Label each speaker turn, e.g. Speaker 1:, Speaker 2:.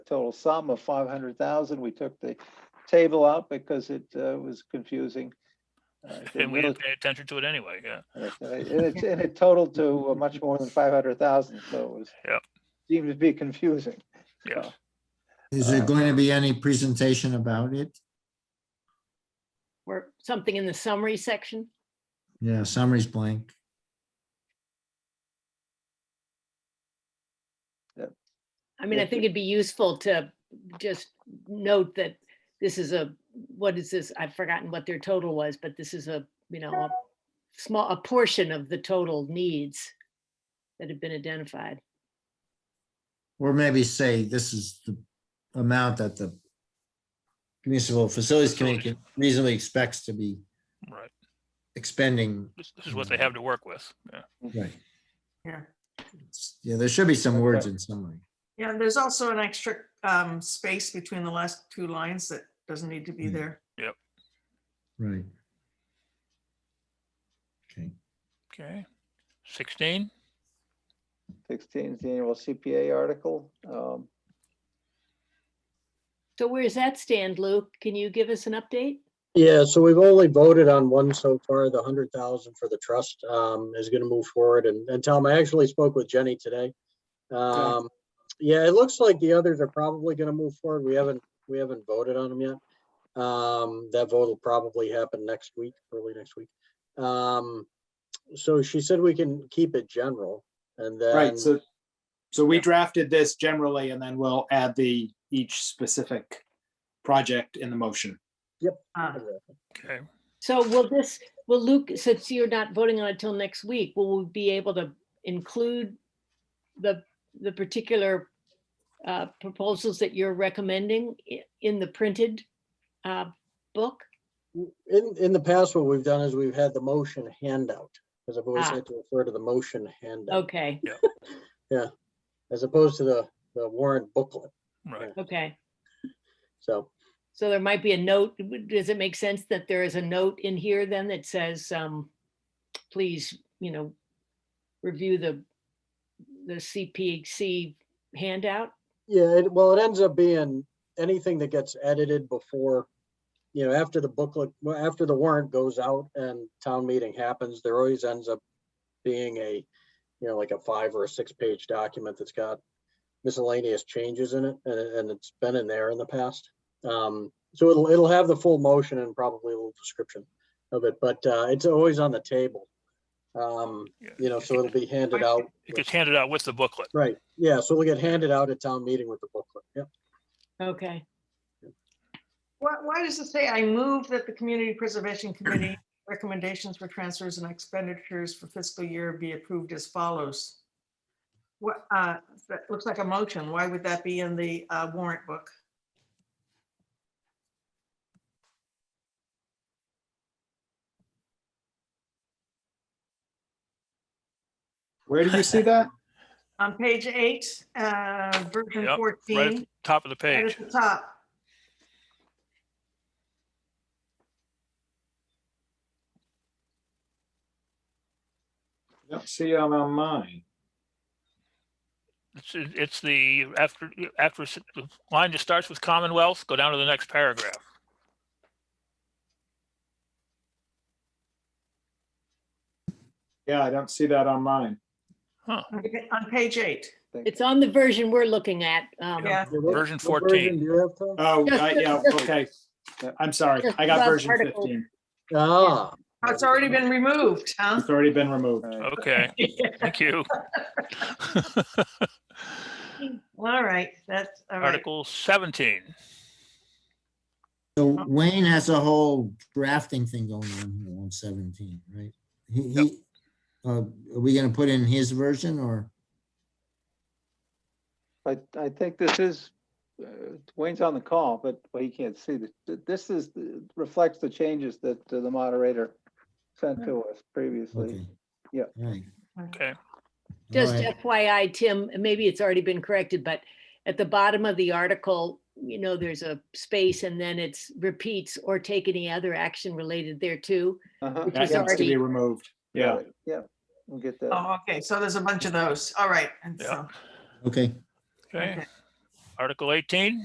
Speaker 1: total sum of five hundred thousand. We took the table out because it uh, was confusing. Uh, it
Speaker 2: And we
Speaker 1: really-
Speaker 2: didn't pay attention to it anyway, yeah.
Speaker 1: uh, And it, and it totaled to uh, much more than five hundred thousand, so it was.
Speaker 2: Yep.
Speaker 1: Seemed to be confusing.
Speaker 2: Yeah.
Speaker 1: So,
Speaker 3: Is there
Speaker 1: Uh,
Speaker 3: going to be any presentation about it?
Speaker 4: or something in the summary section.
Speaker 3: Yeah, summary's blank.
Speaker 4: I mean, I
Speaker 1: Yeah.
Speaker 4: think it'd be useful to just note that this is a, what is this? I've forgotten what their total was, but this is a, you know, a small, a portion of the total needs that have been identified.
Speaker 3: Or maybe say this is the amount that the municipal facilities committee can- reasonably expects to be
Speaker 5: Oh.
Speaker 2: Right.
Speaker 3: expending.
Speaker 2: This, this is what they
Speaker 5: Hmm.
Speaker 2: have to work with, yeah.
Speaker 3: Right.
Speaker 6: Yeah,
Speaker 3: Yeah, there should be some words
Speaker 1: Okay.
Speaker 3: in summary.
Speaker 6: yeah, and there's also an extra um space between the last two lines that doesn't need to be
Speaker 3: Mm.
Speaker 6: there.
Speaker 3: Right. Okay,
Speaker 2: Okay. Sixteen,
Speaker 1: Sixteen is the annual CPA article. Um,
Speaker 4: So where's that stand, Luke? Can you give us an update?
Speaker 5: Yeah, so we've only voted on one so far, the hundred thousand for the trust, um, is gonna move forward, and, and Tom, I actually spoke with Jenny today. Um, yeah, it looks like the others are probably gonna move forward, we haven't, we haven't voted on them yet. Um, that vote will probably happen next week, early next week. Um, so she said we can keep it general, and then.
Speaker 7: Right, so, so we
Speaker 2: Yeah.
Speaker 7: drafted this generally and then we'll add the, each specific project in the motion.
Speaker 6: Uh,
Speaker 2: okay.
Speaker 4: So will this, will Luke, since you're not voting on it till next week, will we be able to include the, the particular uh, proposals that you're recommending i- in the printed uh, book?
Speaker 5: In, in the past, what we've done is we've had the motion handout, because I've always
Speaker 4: Ah.
Speaker 5: had to refer to the motion handout,
Speaker 4: Okay,
Speaker 5: as opposed to the, the warrant booklet.
Speaker 2: Right,
Speaker 4: okay.
Speaker 5: So,
Speaker 4: So there might be a note. w- Does it make sense that there is a note in here then that says, um, please, you know, review the, the CPC handout?
Speaker 5: yeah, it, well, it ends up being anything that gets edited before, you know, after the booklet, well, after the warrant goes out and town meeting happens, there always ends up being a, you know, like a five or a six page document that's got miscellaneous changes in it, and, it- and it's been in there in the past. Um, so it'll, it'll have the full motion and probably a little description of it, but, uh, it's always on the table. Um,
Speaker 2: yeah.
Speaker 5: you know, so it'll be handed out.
Speaker 2: It gets handed out with the booklet.
Speaker 5: Right, yeah, so it'll get handed out at town meeting with the booklet, yep.
Speaker 4: Okay,
Speaker 6: Why, why does it say, I move that the Community Preservation Committee recommendations for transfers and expenditures for fiscal year be approved as follows? What, uh, that looks like a motion. Why would that be in the uh, warrant book?
Speaker 7: Where do you see that?
Speaker 6: On page eight, uh, version
Speaker 2: Yep, Right at the
Speaker 6: fourteen,
Speaker 2: top of the
Speaker 6: right
Speaker 2: page.
Speaker 6: at the top.
Speaker 7: Don't see it on mine.
Speaker 2: It's, it's the, after, after s- the line that starts with Commonwealth, go down to the next paragraph.
Speaker 7: Yeah, I don't see that on mine.
Speaker 6: On pa- on page eight.
Speaker 1: thank
Speaker 4: it's on the version we're looking at. um,
Speaker 6: Yeah.
Speaker 5: Yeah, what-
Speaker 2: Version
Speaker 5: what version
Speaker 2: 14.
Speaker 5: Do you have, Tom?
Speaker 7: Oh,
Speaker 4: Just-
Speaker 7: I- yeah,
Speaker 4: just-
Speaker 7: okay. I'm sorry.
Speaker 4: just
Speaker 7: I got
Speaker 4: above
Speaker 7: version
Speaker 4: article.
Speaker 7: fifteen.
Speaker 5: Ah,
Speaker 6: Oh, It's already been removed, huh?
Speaker 7: It's already been removed.
Speaker 1: you. Right.
Speaker 2: Okay, thank you.
Speaker 6: All right, that's all right.
Speaker 2: Article seventeen.
Speaker 3: so Wayne has a whole drafting thing going on here on seventeen, right? He, he, uh, are we gonna put in his version or?
Speaker 1: I, I think this is, uh, Wayne's on the call, but well, he can't see this. Th- This is, the- reflects the changes that uh, the moderator sent to us previously.
Speaker 3: okay.
Speaker 1: yeah.
Speaker 3: All right.
Speaker 2: Okay,
Speaker 4: Just
Speaker 3: All right.
Speaker 4: FYI, Tim, maybe it's already been corrected, but at the bottom of the article, you know, there's a space and then it's repeats or take any other action related thereto.
Speaker 1: Uh-huh.
Speaker 4: Which
Speaker 7: That
Speaker 4: is
Speaker 1: Yeah,
Speaker 7: needs to be
Speaker 4: already-
Speaker 7: removed. Yeah.
Speaker 1: right. Yeah, we'll get that.
Speaker 6: Oh, okay, so there's a bunch of those. All right, and
Speaker 2: Yeah.
Speaker 6: so.
Speaker 3: Okay,
Speaker 2: okay.
Speaker 6: Okay.
Speaker 2: Article eighteen?